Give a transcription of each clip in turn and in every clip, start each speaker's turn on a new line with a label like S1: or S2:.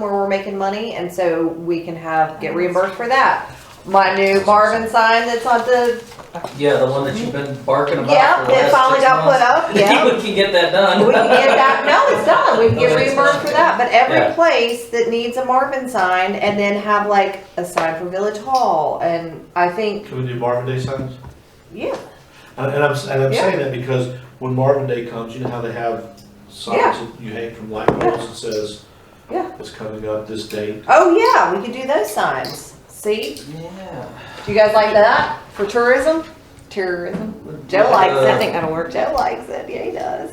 S1: where we're making money, and so we can have, get reimbursed for that. My new Marvin sign that's on the,
S2: Yeah, the one that you've been barking
S1: yeah,
S2: about for the
S1: that
S2: last
S1: finally
S2: six
S1: got put
S2: months.
S1: up, yeah.
S2: We can get that
S1: We can
S2: done.
S1: get that, no, it's done, we can get reimbursed for that, but every
S2: Yeah.
S1: place that needs a Marvin sign and then have like a sign for Village Hall, and I think,
S3: Can we do Marvin Day signs?
S1: yeah,
S3: And, and I'm, and I'm
S1: Yeah.
S3: saying that because when Marvin Day comes, you know how they have signs
S1: Yeah.
S3: that you hang from light poles that says,
S1: Yeah.
S3: it's coming up this date.
S1: oh yeah, we could do those signs, see?
S2: Yeah.
S1: Do you guys like that for tourism? Tourism, Joe likes
S2: uh,
S1: it, I think that'll work, Joe likes it, yeah, he does.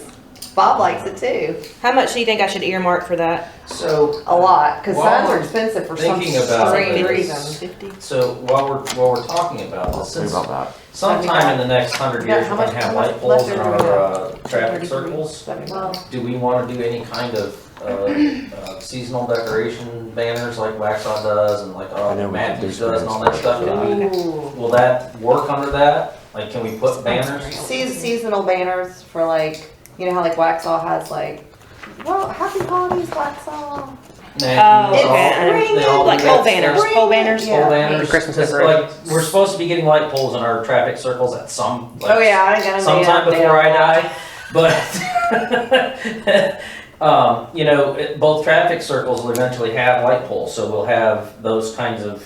S1: Bob likes it too,
S4: How much do you think I should earmark for that?
S2: So,
S1: a lot, cause
S2: While
S1: signs are
S2: we're
S1: expensive for some
S2: thinking about
S1: strange
S2: this-
S1: reason.
S4: Fifty.
S2: so while we're, while we're talking about this,
S5: Sorry
S2: since
S5: about that.
S2: sometime in the next hundred years,
S1: Yeah, how
S2: we're gonna
S1: much-
S2: have
S1: how much
S2: light poles in
S1: left
S2: our,
S1: over
S2: uh, traffic
S4: Thirty-three.
S2: circles.
S1: Well,
S2: Do we wanna do any kind of, uh, uh, seasonal decoration banners like Waxaw does and like,
S5: I know
S2: uh,
S5: we
S2: Matthews
S5: could do
S2: does and all that stuff?
S5: screens.
S2: Can we-
S1: ooh.
S2: Will that work under that? Like, can we put banners?
S1: Sea- seasonal banners for like, you know how like Waxaw has like, well, happy holidays, Waxaw.
S2: Nah,
S4: Oh,
S2: they all-
S4: okay, I know.
S2: they all do
S4: Like
S2: that
S4: pole banners,
S2: stuff.
S4: pole banners.
S1: Yeah.
S2: Pole banners,
S5: Christmas
S2: 'cause, like,
S5: decorations.
S2: we're supposed to be getting light poles in our traffic circles at some, like,
S1: Oh yeah, I got
S2: sometime before I die, but, um, you know, it- both traffic circles will eventually have light poles, so we'll have those kinds of,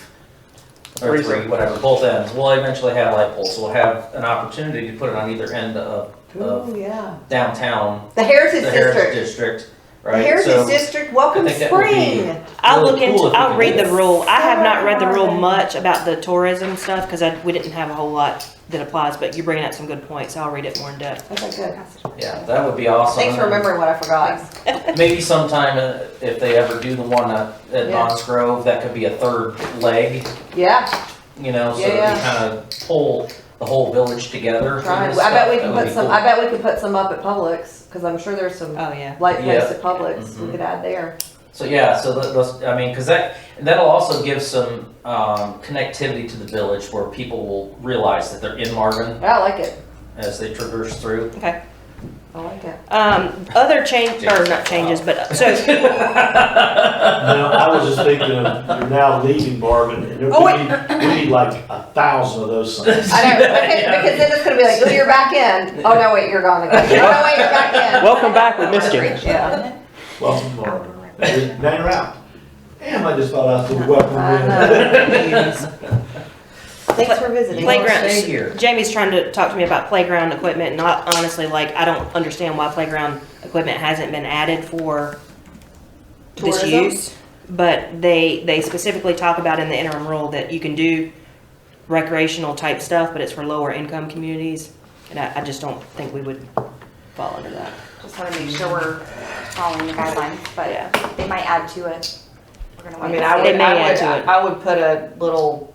S2: or
S5: Three
S2: three, whatever, both ends, we'll eventually have light poles, so we'll have an opportunity to put it on either end of
S1: Oh yeah.
S2: downtown,
S1: The
S2: the
S1: Heritage
S2: Heritage
S1: District.
S2: District,
S1: The
S2: right? So-
S1: Heritage District, welcome
S2: I think that would be-
S1: spring.
S4: I'll
S2: Really
S4: look
S2: cool
S4: into.
S2: if we
S4: I'll
S2: could
S4: read
S2: do
S4: the
S2: that.
S4: rule. I have not read the rule much about the tourism stuff because I we didn't have a whole lot that applies. But you're bringing up some good points. I'll read it more in depth.
S1: Okay, good.
S2: Yeah, that would be awesome.
S1: Thanks for remembering what I forgot.
S2: Maybe sometime, uh, if they ever do the one at, at
S1: Yeah.
S2: Knott's Grove, that could be a third leg,
S1: Yeah,
S2: you know, so
S1: Yeah,
S2: that we
S1: yeah.
S2: kind of pull the whole village together. for
S1: trying. I
S2: this
S1: bet
S2: stuff.
S1: we
S2: That
S1: can
S2: would
S1: put
S2: be
S1: some,
S2: cool.
S1: I bet we could put some up at Publix, cause I'm sure there's some
S4: Oh yeah.
S1: light posts
S2: Yeah.
S1: at Publix we
S2: Mhm.
S1: could add there.
S2: So, yeah, so tho- those, I mean, because that, that'll also give some, um, connectivity to the village where people will realize that they're in Marvin
S1: Yeah, I like it.
S2: as they traverse through.
S1: I like it.
S4: Um, other change or not changes, but so
S3: Now, I was just thinking of, you're now leaving Marvin, and there-
S1: Oh,
S3: we need, we need like a thousand of those signs.
S1: I know, because, because then it's gonna be like, oh, you're back in. Oh, no, wait, you're gone again. Oh, no, wait, you're back in.
S5: Welcome back, we missed you.
S1: Yeah.
S3: Welcome to Marvin. Now you're- Now you're out. Damn, I just thought I was welcome
S1: I
S3: in.
S1: know. Thanks for visiting.
S2: You
S4: Playground.
S2: wanna Stay here.
S4: Jamie's trying to talk to me about playground equipment, and I honestly, like, I don't understand why playground equipment hasn't been added for this
S1: Tourism?
S4: use. But they, they specifically talk about in the interim rule that you can do recreational type stuff, but it's for lower income communities. And I, I just don't think we would fall under that.
S6: Just wanna make sure we're following the guidelines,
S4: Yeah.
S6: but they might add to it. We're gonna
S1: I
S6: wait
S1: mean,
S6: and
S1: I
S6: see.
S1: would,
S4: may
S1: I
S4: add
S1: would,
S4: to it.
S1: I would put a little,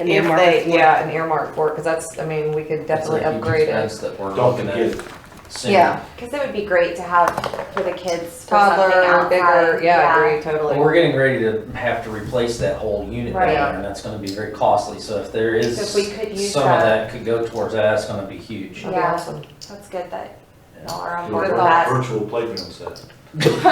S4: And
S1: if
S4: earmark
S1: they,
S4: it for-
S1: yeah, an earmark for it, cause that's, I mean, we could definitely
S2: It's a huge
S1: upgrade it.
S2: expense That we're
S3: Don't
S2: looking
S3: forget,
S2: at
S3: it.
S2: soon.
S1: Yeah,
S6: Cause it would be great to have for the kids for something
S1: toddler, bigger,
S6: outside.
S1: yeah, agree, totally.
S2: Well, we're getting ready to have to replace that whole unit down
S6: Right.
S2: there, and that's gonna be very costly, so if there is,
S6: So if we could use
S2: some of
S6: that.
S2: that could go towards that, it's gonna be huge.
S1: That'd be
S6: Yeah.
S1: awesome.
S6: That's good that y'all are on
S3: Do
S6: board
S3: a
S6: with
S1: Good
S6: that.
S3: Virtual playground set.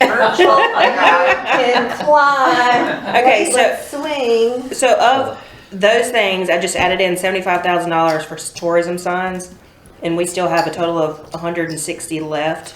S6: Virtual playground.
S1: Can climb.
S4: Okay, so,
S1: Swing.
S4: so of those things, I just added in seventy-five thousand dollars for tourism signs, and we still have a total of hundred and sixty left.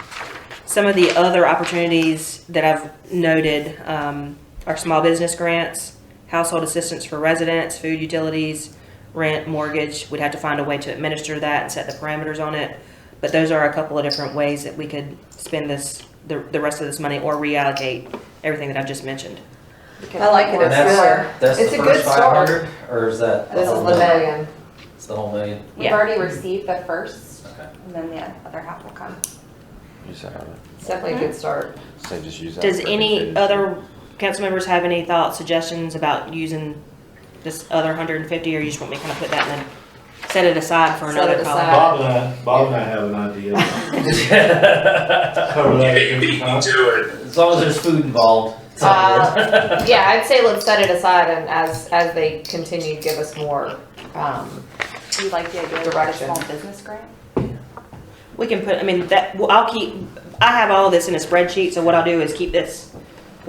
S4: Some of the other opportunities that I've noted um, are small business grants, household assistance for residents, food utilities, rent, mortgage. We'd have to find a way to administer that and set the parameters on it. But those are a couple of different ways that we could spend this, the, the rest of this money or reallocate everything that I've just mentioned.
S1: I like it,
S2: And
S1: it's
S2: that's,
S1: similar.
S2: that's
S1: It's
S2: the
S1: a good
S2: first five
S1: start.
S2: hundred, or is that?
S1: This is
S2: whole
S1: the
S2: million?
S1: million.
S2: It's the whole million,
S6: We've
S4: Yeah.
S6: already received the first,
S2: okay.
S6: and then the other half will come.
S5: Use that other,
S1: It's definitely a good start.
S5: so just use that.
S4: Does
S5: for
S4: any
S5: food.
S4: other council members have any thoughts, suggestions about using this other hundred and fifty, or you just want me to kind of put that in and set it aside for
S1: Set
S4: another
S1: it
S4: call?
S1: aside.
S3: Bob and I, Bob and I have an idea. Cover that at different times.
S2: As long as there's food involved. it's all good.
S1: Uh, yeah, I'd say let's set it aside and as, as they continue, give us more, um,
S6: Do you like the idea of a
S1: Direction.
S6: small business grant?
S4: We can put, I mean, that, well, I'll keep, I have all this in a spreadsheet, so what I'll do is keep this